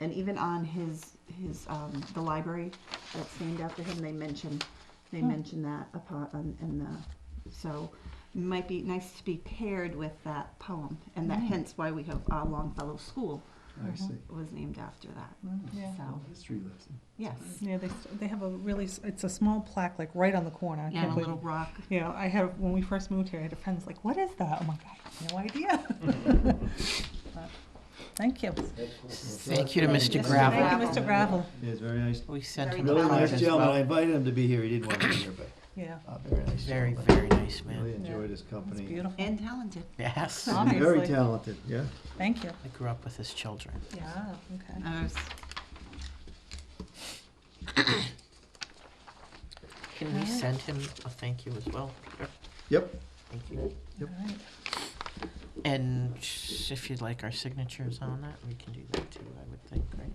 and even on his, his, um, the library that's named after him, they mention, they Hmm. mention that upon, on- in the, so might be nice to be paired with that poem, and Hmm. that hence why we have, uh, Longfellow School I see. was named after that, Nice. Mm-hmm. Yeah. so, History lesson. yes. Yeah, they, s- they have a really, s- it's a small plaque, like right on the corner. I Yeah, can't and a believe- little rock, You know, I have, when we first moved here, I had a friend's like, what is that? I'm like, I have no idea. But, Thank you. Thank you to Mr. Gravel. Thank you, Mr. Gravel. Yes, very nice. We sent Very him a Well, Really nice card as gentleman. I well. invited him to be here. He didn't want to be here, but Yeah, uh, very nice. Very, gentleman. very nice Really man. enjoyed his it's company. beautiful. and talented, Yes. Oh. I And Very Obviously. talented, yeah. Thank you. grew up with his children. Yeah, okay. I was Can we Alright. send him a thank you as well? Peter? Yep. Thank you. Yep. All right. And sh- if you'd like our signatures on that, we can do that too, I would think, right?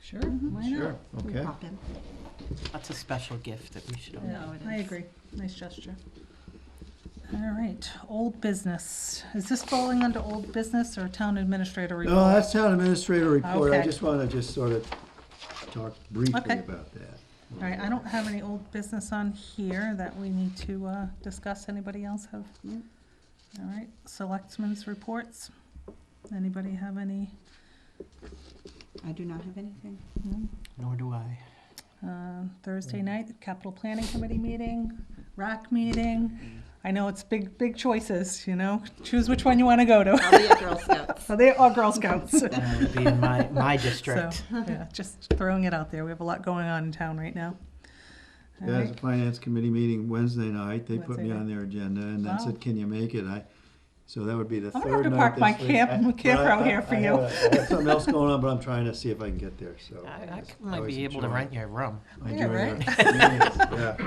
Sure, why not? Mm-hmm. Sure, okay. pop in. That's a special gift that we should own. Yeah, No, it I is. agree. Nice gesture. All right, old business. Is this falling under old business or town administrator report? No, that's town administrator report. I Okay. just want to just sort of talk briefly Okay. about that. All right, I don't have any old business on here that we need to uh, discuss. Anybody else have? No. All right, selectmen's reports. Anybody have any? I do not have anything. No? Nor do I. Uh, Thursday night, capital planning committee meeting, RAC meeting. I know it's big, big choices, you know? Choose which one you want to go to. I'll be at Girl Scouts. Are they all Girl Scouts? That would be in my, my So, district. yeah, just throwing it out there. We have a lot going on in town right now. All There's a right. finance committee meeting Wednesday night. They put Wednesday me on night. their agenda and then Wow. said, can you make it? I, so that would be the I'm gonna have third to night park my this week. camp- I- my but I- camper out I- here for I you. have a- I have Something else going on, but I'm trying to see if I can get there, so. I, I it's might always be able to enjoy- rent your room. I Yeah, enjoy their right? meetings,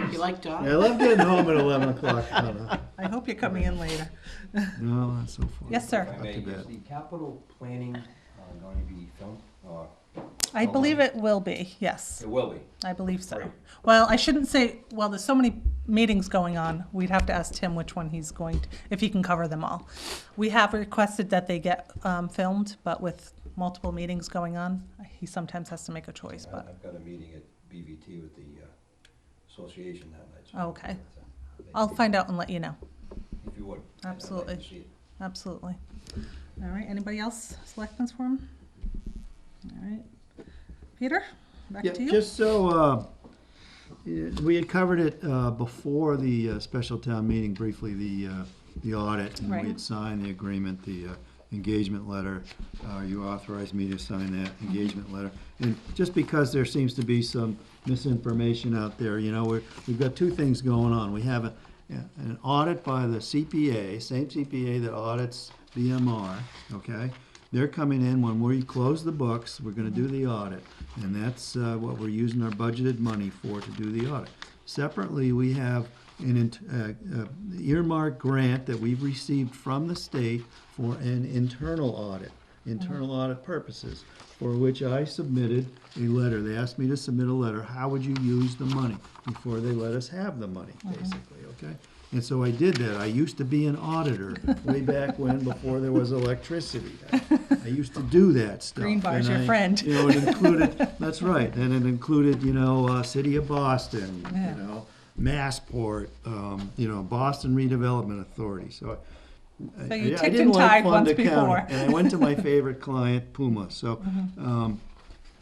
Yeah, You like Yeah, I dogs? love getting home at eleven o'clock. I don't know. I hope you're coming in later. No, not so far. Yes, sir. If I Not may, too is bad. the capital planning uh, going to be filmed? or- I believe it will be, yes. It will be. I believe so. Great. Well, I shouldn't say, well, there's so many meetings going on. We'd have to ask Tim which one he's going, to if he can cover them all. We have requested that they get um, filmed, but with multiple meetings going on, he sometimes has to make a choice, I- but, I've got a meeting at BVT with the uh, association that night. uh, so- Oh, Okay. I'll find out and let you know. If you would. I'd like to Absolutely. see it. Absolutely. All right, anybody else, selectmen's forum? All right. Peter, back Yeah, to you. just so, uh, yeah, we had covered it uh, before the uh, special town meeting briefly, the, uh, the audit. and Right. We had signed the agreement, the uh, engagement letter. Uh, You authorized me to sign that engagement letter. And just because there seems to be some misinformation out there, you know, we're- we've got two things going on. We have a- an audit by the CPA, same CPA that audits BMR, okay? They're coming in when we close the books, we're gonna do the audit, and that's uh, what we're using our budgeted money for to do the audit. Separately, we have an int- uh, uh, earmark grant that we've received from the state for an internal audit, internal audit purposes, for which I submitted a letter. They asked me to submit a letter, how would you use the money, before they let us have the money, basically, okay? And so I did that. I used to be an auditor way back when, before there was electricity. I, I used to do that stuff. Green bar's and your I- friend. You know, it included, that's right, and it included, you know, uh, City of Boston, Yeah. you know, Massport, um, you know, Boston Redevelopment Authority, so. I- So I- you I ticked didn't and like tied Fonda once County, before. Mm-hmm. And I went to my favorite client, Puma, so, um,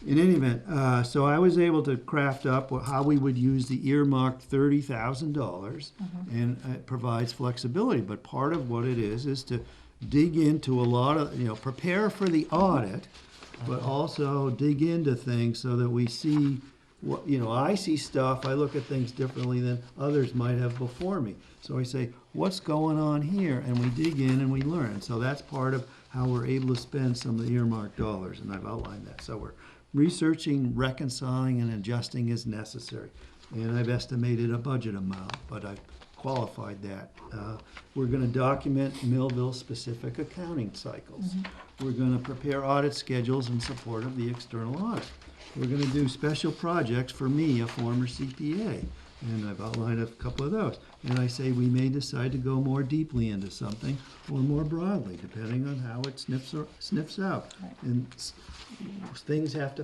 in any event, uh, so I was able to craft up wha- how we would use the earmarked thirty thousand dollars, Mm-hmm. and it provides flexibility. But part of what it is is to dig into a lot of you know prepare for the audit, Mm-hmm. but also dig into things so that we see what you know. I see stuff. I look at things differently than others might have before me. So I say, what's going on here? And we dig in and we learn. So that's part of how we're able to spend some of the earmarked dollars, and I've outlined that. So we're researching, reconciling, and adjusting as necessary. And I've estimated a budget amount, but I've qualified that. Uh, We're gonna document Millville-specific accounting cycles. We're gonna prepare audit schedules in support of the external audit. We're gonna do special projects for me, a former CPA, and I've outlined a couple of those. And I say we may decide to go more deeply into something or more broadly, depending on how it sniffs, or- sniffs out. Right. And s- things have to